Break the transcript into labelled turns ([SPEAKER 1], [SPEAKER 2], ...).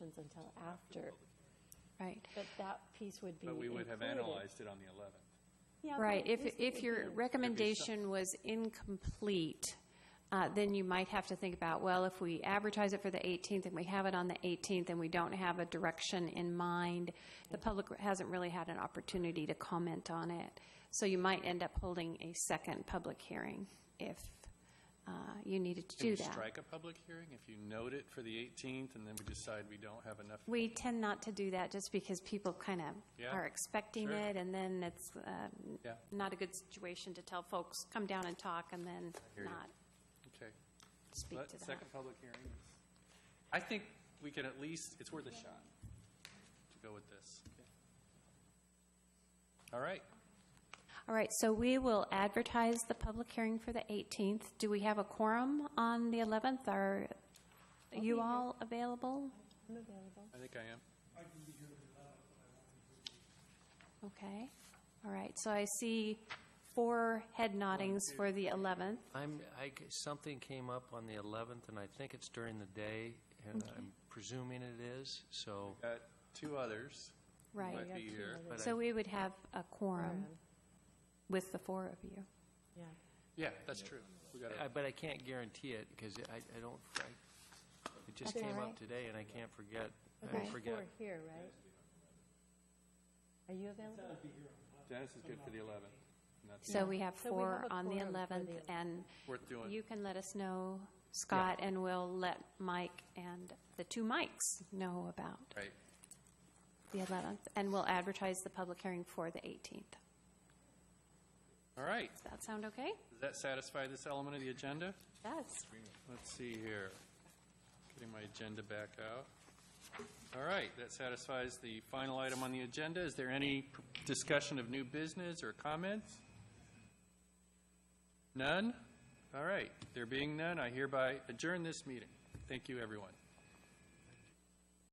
[SPEAKER 1] plans until after.
[SPEAKER 2] Right,
[SPEAKER 1] But that piece would be
[SPEAKER 3] But we would have
[SPEAKER 1] included.
[SPEAKER 3] analyzed it on the 11th.
[SPEAKER 1] Yeah, but
[SPEAKER 2] right. If,
[SPEAKER 1] this
[SPEAKER 2] if
[SPEAKER 1] would
[SPEAKER 2] your
[SPEAKER 1] be-
[SPEAKER 2] recommendation was incomplete, uh, then you might have to think about, well, if we advertise it for the 18th and we have it on the 18th and we don't have a direction in mind, the public hasn't really had an opportunity to comment on it. So you might end up holding a second public hearing if uh, you needed to
[SPEAKER 3] Can
[SPEAKER 2] do
[SPEAKER 3] we
[SPEAKER 2] that.
[SPEAKER 3] strike a public hearing if you note it for the 18th and then we decide we don't have enough?
[SPEAKER 2] We tend not to do that just because people kind of
[SPEAKER 3] Yeah,
[SPEAKER 2] are expecting
[SPEAKER 3] sure.
[SPEAKER 2] it, and then it's um,
[SPEAKER 3] Yeah.
[SPEAKER 2] not a good situation to tell folks, come down and talk, and then
[SPEAKER 3] hear you.
[SPEAKER 2] not
[SPEAKER 3] Okay.
[SPEAKER 2] speak
[SPEAKER 3] Let-
[SPEAKER 2] to them.
[SPEAKER 3] Second public hearing. is- I think we can at least, it's worth a shot to go with this. All right.
[SPEAKER 2] All right, so we will advertise the public hearing for the 18th. Do we have a quorum on the 11th? Are you all available?
[SPEAKER 1] I'm available.
[SPEAKER 3] I think I am.
[SPEAKER 2] Okay, all right, so I see four head noddings for the 11th.
[SPEAKER 4] I'm, I g- something came up on the 11th, and I think it's during the day, and I'm presuming it is, so,
[SPEAKER 3] Got two others.
[SPEAKER 2] Right.
[SPEAKER 3] Might be here.
[SPEAKER 4] but I-
[SPEAKER 2] So we would have a quorum
[SPEAKER 1] Quorum.
[SPEAKER 2] with the four of you.
[SPEAKER 1] Yeah.
[SPEAKER 3] Yeah, that's true. We got
[SPEAKER 4] I-
[SPEAKER 2] Uh,
[SPEAKER 3] it.
[SPEAKER 4] but I can't guarantee it, because I, I don't, I, it just
[SPEAKER 2] That's
[SPEAKER 4] came
[SPEAKER 2] all right.
[SPEAKER 4] up today, and I can't forget,
[SPEAKER 1] But
[SPEAKER 4] I
[SPEAKER 1] there's
[SPEAKER 4] forget.
[SPEAKER 1] four here, right? Are you available?
[SPEAKER 3] Dennis is good for the 11th. and that's
[SPEAKER 2] So we have
[SPEAKER 1] So we
[SPEAKER 2] four
[SPEAKER 1] have a
[SPEAKER 2] on the
[SPEAKER 1] quorum for
[SPEAKER 2] 11th,
[SPEAKER 1] the-
[SPEAKER 2] and
[SPEAKER 3] worth doing.
[SPEAKER 2] you can let us know, Scott, and we'll let Mike and the two Mikes know about
[SPEAKER 3] Right.
[SPEAKER 2] the 11th, and we'll advertise the public hearing for the 18th.
[SPEAKER 3] All right.
[SPEAKER 2] Does that sound okay?
[SPEAKER 3] Does that satisfy this element of the agenda?
[SPEAKER 2] Yes.
[SPEAKER 3] Let's see here. Getting my agenda back out. All right, that satisfies the final item on the agenda. Is there any pr- discussion of new business or comments? None? All right, there being none, I hereby adjourn this meeting. Thank you, everyone.